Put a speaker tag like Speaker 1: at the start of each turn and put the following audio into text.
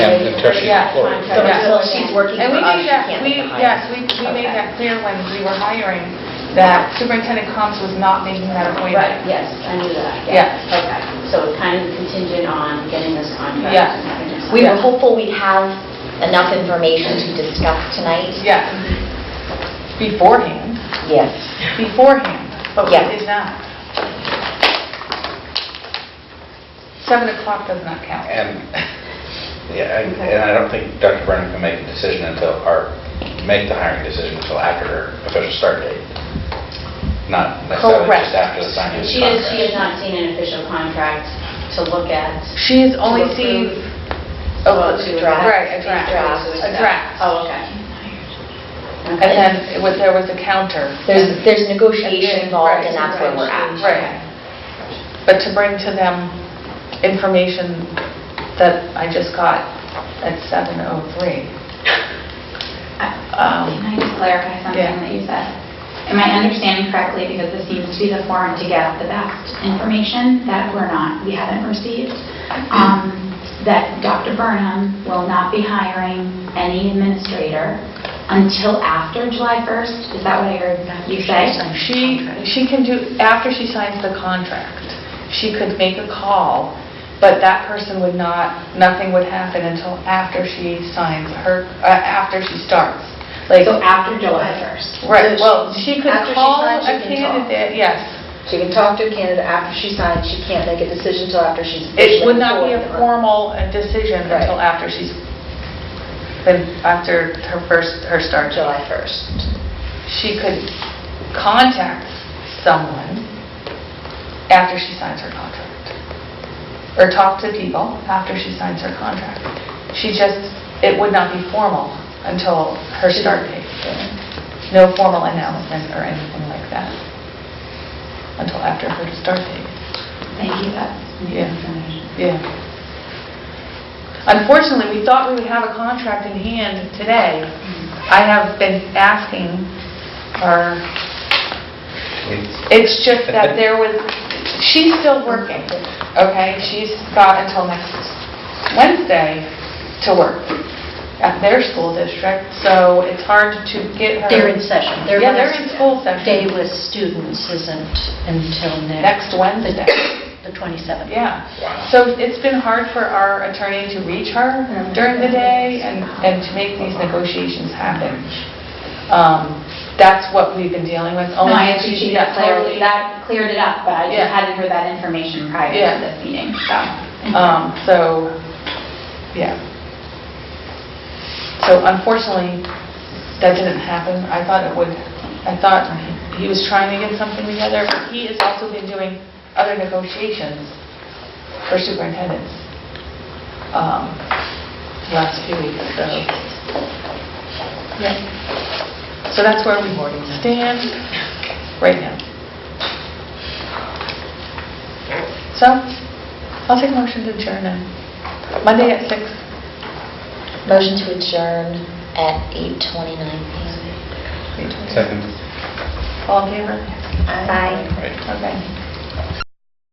Speaker 1: until she's
Speaker 2: Yeah,
Speaker 1: employed.
Speaker 2: until- yeah.
Speaker 3: Until she's working
Speaker 2: And
Speaker 3: for
Speaker 2: we
Speaker 3: us,
Speaker 2: made
Speaker 3: she
Speaker 2: that,
Speaker 3: can't
Speaker 2: we,
Speaker 3: get hired.
Speaker 2: yes, we, we made
Speaker 3: Okay.
Speaker 2: that clear when we were hiring, that Superintendent Combs was not making that
Speaker 3: Right,
Speaker 2: appointment.
Speaker 3: yes, I knew that,
Speaker 2: Yeah.
Speaker 3: yes, okay. So it's kind of contingent on getting this contract.
Speaker 2: Yeah.
Speaker 3: and having this-
Speaker 4: We
Speaker 2: Yeah.
Speaker 4: were hopeful we'd have enough information to discuss tonight.
Speaker 2: Yes. Beforehand,
Speaker 4: Yes.
Speaker 2: beforehand, but we
Speaker 4: Yeah.
Speaker 2: did not. Seven o'clock does not count.
Speaker 1: And, yeah, and and I don't think Dr. Brennan can make a decision until, or make the hiring decision until after her official start date, not necessarily
Speaker 4: Correct.
Speaker 1: just after the signing of the
Speaker 3: She
Speaker 1: contract.
Speaker 3: has, she has not seen an official contract to look at.
Speaker 2: She has only
Speaker 3: To
Speaker 2: seen
Speaker 3: approve.
Speaker 4: Oh,
Speaker 3: to-
Speaker 4: a draft.
Speaker 2: Right, a draft.
Speaker 3: to
Speaker 4: Draft.
Speaker 2: a draft.
Speaker 3: Oh, okay.
Speaker 2: And then it was, there was a counter.
Speaker 4: There's, there's
Speaker 2: Right,
Speaker 4: negotiation involved, and that's where
Speaker 2: right,
Speaker 4: we're at.
Speaker 2: Right. But to bring to them information that I just got at 7:03.
Speaker 5: Can
Speaker 2: Um,
Speaker 5: I just clarify something
Speaker 2: Yeah.
Speaker 5: that you said? Am I understanding correctly, because this seems to be the forum to get the best information that we're not, we haven't received, um, that Dr. Burnham will not be hiring any administrator until after July 1st? Is that what I heard you say?
Speaker 2: She, she can do, after she signs the contract, she could make a call, but that person would not, nothing would happen until after she signs her, uh, after she starts. Like,
Speaker 5: So after July 1st?
Speaker 2: right, well, she could
Speaker 6: After she
Speaker 2: call a
Speaker 6: signs, she can talk.
Speaker 2: candidate, yes.
Speaker 6: She can talk to a candidate after she signs, she can't make a decision until after she's
Speaker 2: It
Speaker 6: officially
Speaker 2: would not be a
Speaker 6: employed.
Speaker 2: formal uh, decision
Speaker 6: Right.
Speaker 2: until after she's, been after her first, her start job.
Speaker 6: July 1st.
Speaker 2: She could contact someone after she signs her contract, or talk to people after she signs her contract. She just, it would not be formal until her start date. No formal announcement or anything like that until after her start date.
Speaker 5: Thank you, that's new
Speaker 2: Yeah.
Speaker 5: information.
Speaker 2: Yeah. Unfortunately, we thought we would have a contract in hand today. I have been asking her, it's just that there was, she's still working, okay? She's got until next Wednesday to work at their school district, so it's hard to get her.
Speaker 7: They're in session. Their
Speaker 2: Yeah, they're in
Speaker 7: last
Speaker 2: school
Speaker 7: Day
Speaker 2: session
Speaker 7: with students isn't until next,
Speaker 2: next Wednesday.
Speaker 7: the 27th.
Speaker 2: Yeah.
Speaker 1: Wow.
Speaker 2: So it's been hard for our attorney to reach her during the day and, and to make these negotiations happen. Um, That's what we've been dealing with.
Speaker 5: No,
Speaker 2: only
Speaker 5: oh, I
Speaker 2: because
Speaker 5: appreciate
Speaker 2: she
Speaker 5: that
Speaker 2: got
Speaker 5: clarity,
Speaker 2: totally-
Speaker 5: that cleared it up, but I
Speaker 2: Yeah.
Speaker 5: just hadn't heard that information prior
Speaker 2: Yeah.
Speaker 5: to this meeting, so.
Speaker 2: Um, So, yeah. So unfortunately, that didn't happen. I thought it would. I thought he was trying to get something together. but He has also been doing other negotiations for superintendents um, the last few weeks, so. Yeah. So that's where we stand right now. So, I'll take a motion to adjourn now. Monday at six.
Speaker 4: Motion to adjourn at 8:29 PM.
Speaker 1: Second.
Speaker 2: All in favor?
Speaker 4: Bye.
Speaker 1: Right.
Speaker 2: Okay.